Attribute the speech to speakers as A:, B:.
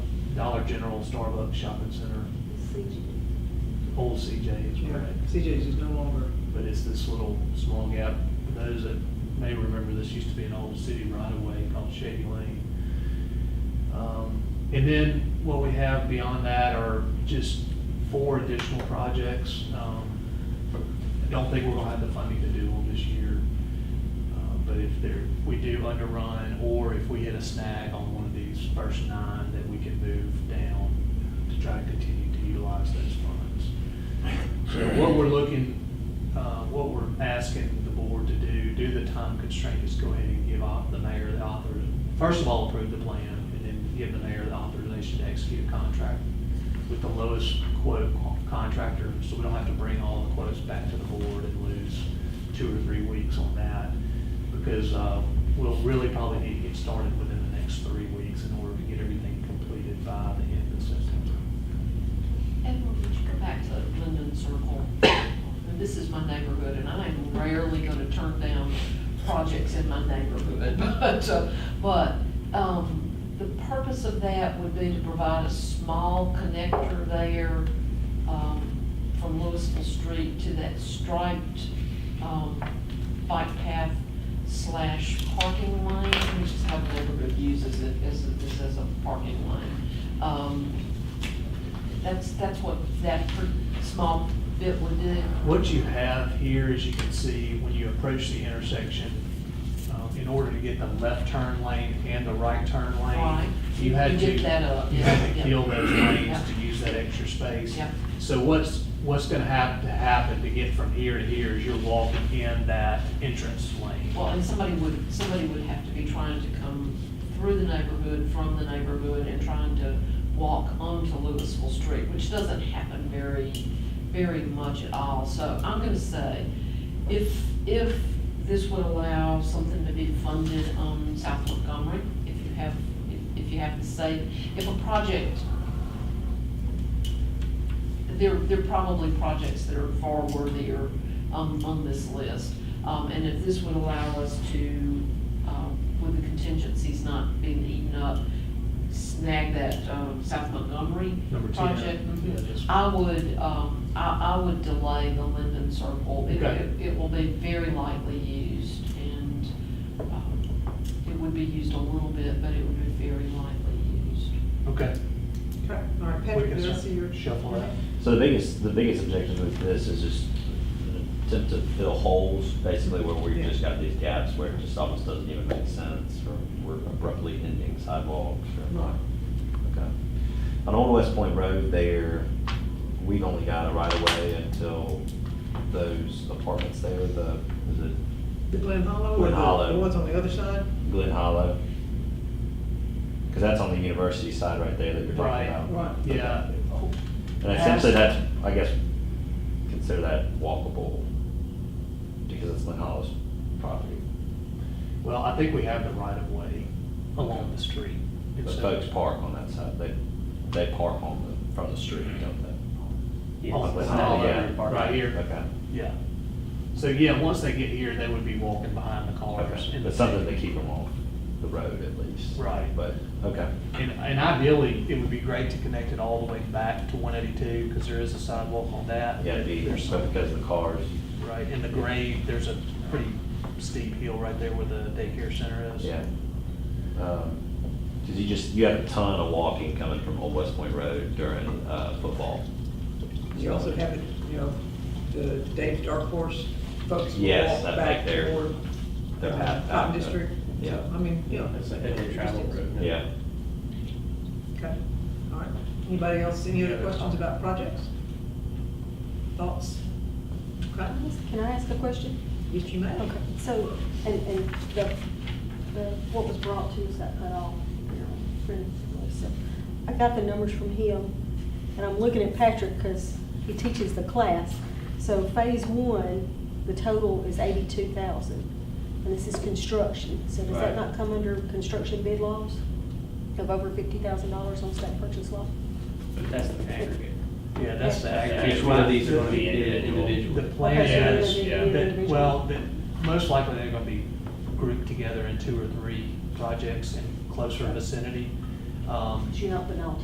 A: Dollar General, Starbucks, shopping center, old CJ is correct.
B: CJ's is no longer,
A: But it's this little small gap. For those that may remember, this used to be an old city right of way called Shady Lane. Um, And then what we have beyond that are just four additional projects. Um, I don't think we're gonna have the funding to do them this year. Uh, But if there, we do underrun, or if we hit a snag on one of these first nine, that we can move down to try to continue to utilize those funds. So what we're looking, uh, what we're asking the board to do, due to the time constraint, is go ahead and give au- the mayor the author, first of all, approve the plan, and then give the mayor the authorization to execute a contract with the lowest quote contractor, so we don't have to bring all the quotes back to the board and lose two or three weeks on that, because uh, we'll really probably need to get started within the next three weeks in order to get everything completed by the end of September.
C: Edward, would you go back to Linden Circle? And this is my neighborhood, and I am rarely gonna turn down projects in my neighborhood, but, uh, but, um, the purpose of that would be to provide a small connector there, um, from Louisville Street to that striped, um, bike path slash parking lane, which is how the neighborhood uses it, as, a- as a parking lane. Um, that's, that's what that per- small bit would do.
A: What you have here, as you can see, when you approach the intersection, um, in order to get the left turn lane and the right turn
C: Right.
A: lane, you had to.
C: You did that up,
A: You had
C: yeah,
A: to
C: yeah.
A: kill those lanes
C: Yeah.
A: to use that extra space.
C: Yeah.
A: So what's, what's gonna have to happen to get from here to here is you're walking in that entrance lane.
C: Well, and somebody would, somebody would have to be trying to come through the neighborhood, from the neighborhood, and trying to walk onto Louisville Street, which doesn't happen very, very much at all. So I'm gonna say, if, if this would allow something to be funded on South Montgomery, if you have, if- if you have to say, if a project there, there are probably projects that are far worthier um, on this list. Um, And if this would allow us to, um, with the contingencies not being eaten up, snag that um, South Montgomery
A: Number 10.
C: project. mhm.
A: Yeah, just-
C: I would, um, I, I would delay the Linden Circle. It-
A: Okay.
C: It it will be very lightly used and um, it would be used a little bit, but it would be very lightly used.
A: Okay.
B: all right,
A: We
B: Patrick,
A: can
B: did I
A: sort-
B: see your?
A: Shuffle that.
D: So the biggest, the biggest objection with this is just an attempt to fill holes, basically where we've just got these gaps where it just almost doesn't even make sense, or we're abruptly ending sidewalks, or,
B: Right.
D: okay. On Old West Point Road there, we've only got a right of way until those apartments there, the, is it
B: The Glen Hollow? or
D: Glen
B: the-
D: Hollow.
B: The ones on the other side?
D: Glen Hollow? Because that's on the university side right there that you're
A: Right.
D: talking about.
B: Right.
A: Yeah.
D: And essentially, that's, I guess, consider that walkable, because it's Lynn Hollow's property.
A: Well, I think we have the right of way along the street. uh, And
D: But
A: so-
D: folks park on that side, they, they park on the, from the street, don't they?
A: On the
D: Lynn
A: side,
D: Hollow,
A: yeah, Oh, right here.
D: Okay,
A: Yeah. So, yeah, once they get here, they would be walking behind the cars.
D: okay,
A: and-
D: but something to keep them off the road at least.
A: Right.
D: But, okay,
A: And, and ideally, it would be great to connect it all the way back to one eighty-two, because there is a sidewalk on that.
D: yeah, it'd be,
A: There's
D: but
A: some-
D: because of the cars,
A: Right, in the grade, there's a pretty steep hill right there where the daycare center is.
D: yeah. Because you just, you have a ton of walking coming from Old West Point Road during uh, football.
B: You also have, it, you know, the Dave's Dark Horse folks. will
D: Yes,
B: walk
D: I think
B: back
D: they're-
B: toward,
D: Their
B: uh,
D: path
B: Cotton
D: back, uh,
B: District.
D: Yeah.
B: So, I mean, you know, it's like.
D: Yeah.
B: Okay, all right. Anybody else, any other questions about projects? Thoughts? Okay,
E: Can I ask a question?
B: yes, you may.
E: Okay, so, and, and the, the, what was brought to us that cut off, you know, friend, so, I got the numbers from him, and I'm looking at Patrick, because he teaches the class. So phase one, the total is eighty-two thousand, and this is construction, so does
D: Right.
E: that not come under construction bid laws? Of over fifty thousand dollars on state purchase law?
F: But that's the aggregate.
A: Yeah, that's the aggregate.
F: Each one of these are gonna be individual.
A: The plan
E: Okay, so they're
A: is,
E: gonna do
F: yeah,
E: the
A: that,
E: individual.
A: well, that, most likely they're gonna be grouped together in two or three projects in closer vicinity. Um,
E: But you're not putting all